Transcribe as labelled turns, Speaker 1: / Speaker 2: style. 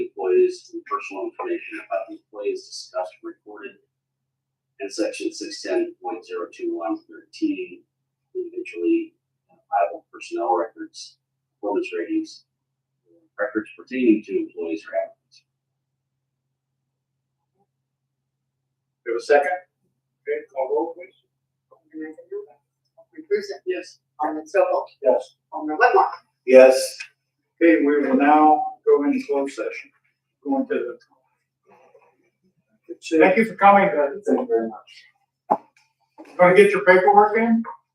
Speaker 1: personal information about employees discussed and recorded in section six ten point zero two one thirteen, individually identifiable personnel records, performance ratings, records pertaining to employees or applicants.
Speaker 2: We have a second? Okay, call roll please.
Speaker 3: Alderman Mazinga. Alderman Cruiser.
Speaker 1: Yes.
Speaker 3: Alderman Stokel.
Speaker 2: Yes.
Speaker 3: Alderman Whitmore.
Speaker 2: Yes. Okay, we will now go into closed session. Going to the. Thank you for coming, guys. Thank you very much. Going to get your paperwork in?